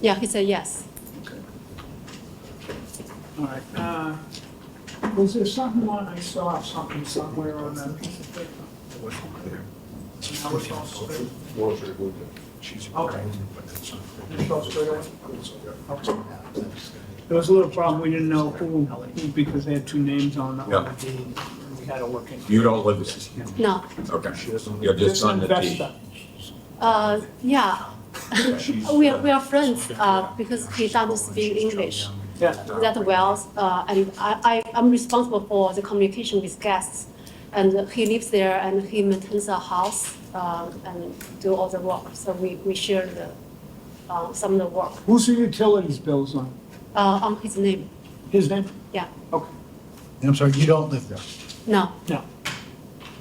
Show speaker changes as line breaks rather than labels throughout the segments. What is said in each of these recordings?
Yeah, he said yes.
All right. uh, Was there something on, I saw something somewhere on that piece of paper?
Oh,
It wasn't clear.
And I was also there.
Walter would, she's.
Okay.
But that's not.
It's also there. Okay.
Okay.
There was a little problem, we didn't know who, who, because they had two names on the, on the deed, and we had to look into.
You don't live there?
No.
Okay.
She doesn't.
You're just
Just
on the deed.
investor.
Uh, yeah.
She's,
we
uh,
are, we are friends uh, because he doesn't speak English
Yeah,
that well, uh, and I, I I'm responsible for the communication with guests, and he lives there and he maintains a house uh, and do all the work. So we, we share the uh, some of the work
who's the utilities bills on?
uh, on his name.
His name?
Yeah,
Okay,
I'm sorry, you don't live there?
no,
no.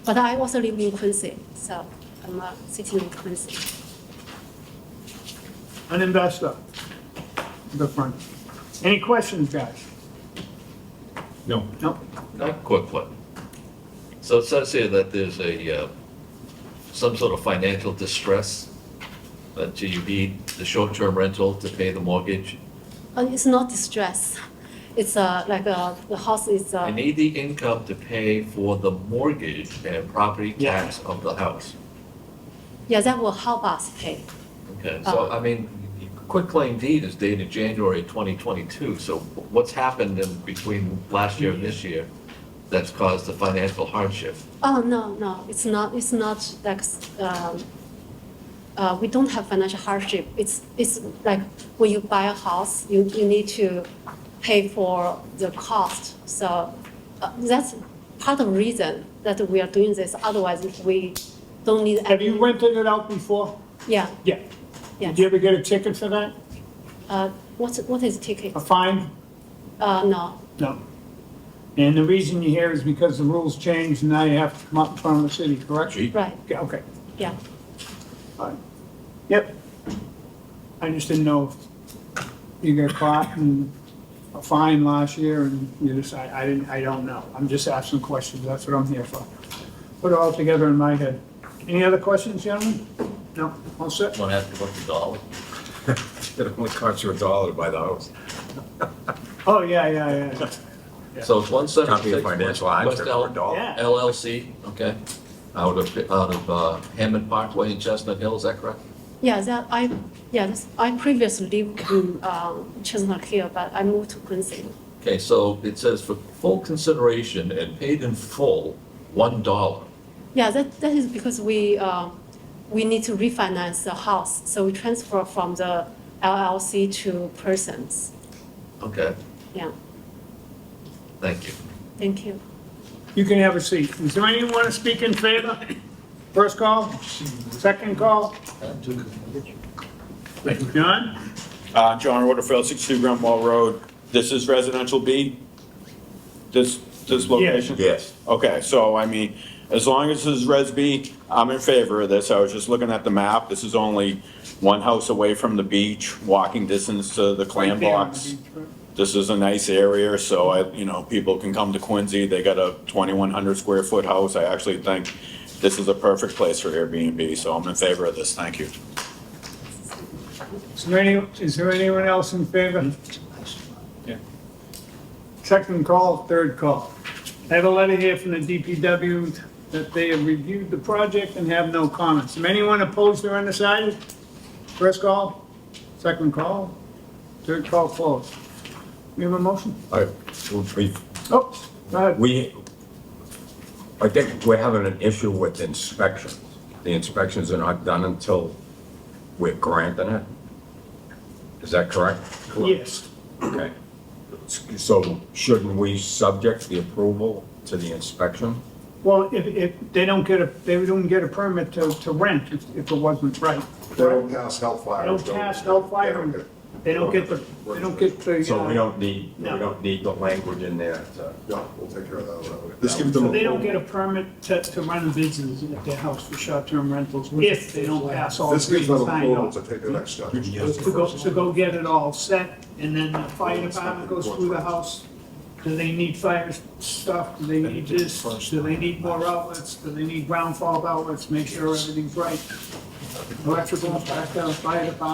but I also live in Quincy, so I'm uh, sitting in Quincy.
An investor. The front. Any questions, guys?
No.
No?
Not quickly. So it says here that there's a, uh, some sort of financial distress, that you need the short-term rental to pay the mortgage.
Uh, it's not distress. It's uh, like uh, the house is uh,
I need the income to pay for the mortgage and property
Yeah.
tax of the house.
yeah, that will help us pay.
Okay, so, I mean, quitclaim deed is dated January 2022, so what's happened in between last year and this year that's caused the financial hardship?
Oh no, no, it's not. It's not like um, uh, we don't have financial hardship. It's it's like when you buy a house, you, you need to pay for the cost. So uh, that's part of the reason that we are doing this. Otherwise, if we don't need
Have you rented it out before?
yeah
Yeah.
yeah.
Did you ever get a ticket for that?
Uh, what what is ticket?
A fine?
Uh, no.
No. And the reason you're here is because the rules changed and now you have to come up in front of the city, correct?
Gee.
Right.
Okay, Okay,
Yeah.
all right. Yep. I just didn't know if you got caught in a fine last year and you just, I, I didn't, I don't know. I'm just asking questions, that's what I'm here for. Put it all together in my head. Any other questions, gentlemen? No, all set?
Want to ask about the dollar?
It only costs you a dollar to buy the house.
Oh, yeah, yeah, yeah.
So it's one
Can't be a
seventy-six West
financial hardship for a
Elm
dollar.
Yeah.
LLC, okay? Out of, out of uh, Hammond Parkway in Chestnut Hill, is that correct?
Yeah, that I, yeah, that's- I previously lived in um, Chestnut Hill, but I moved to Quincy.
Okay, so it says for full consideration and paid in full, one dollar.
Yeah, that, that is because we, uh, we need to refinance the house, so we transfer from the LLC to persons.
Okay,
Yeah,
thank you.
thank you.
You can have a seat. Is there anyone want to speak in favor? First call, second call? Thank you, John?
Uh, John Rutherford, 62 Grand Wall Road. This is residential B? This, this location?
Yes.
Okay, so I mean, as long as this is Res B, I'm in favor of this. I was just looking at the map. This is only one house away from the beach, walking distance to the clam box. This is a nice area, so I, you know, people can come to Quincy. They got a 2,100 square foot house. I actually think this is a perfect place for Airbnb, so I'm in favor of this. Thank you.
Is there any, is there anyone else in favor? Second call, third call. I have a letter here from the DPW that they have reviewed the project and have no comments. Is anyone opposed or undecided? First call, second call, third call closed. We have a motion?
I- we-
Oh, go ahead.
We, I think we're having an issue with inspections. The inspections are not done until we're granting it. Is that correct?
Yes.
Okay. So shouldn't we subject the approval to the inspection?
Well, if, if, they don't get a, they don't get a permit to, to rent if, if it wasn't right.
They don't pass hellfire.
They don't pass, don't fire them. They don't get the, they don't get the.
So we
uh,
don't need, we
No.
don't need the language in there to.
No, we'll take care of that. one. Let's give them.
So they don't get a permit to, to run a business at their house for short-term rentals if they don't pass all
This
three
gives them approval
signs
to take the next step.
To go, to go get it all set, and then the fire department goes through the house. Do they need fire stuff? Do they need this? Do they need more outlets? Do they need ground fault outlets? Make sure everything's right. Electrical, back down, fire department.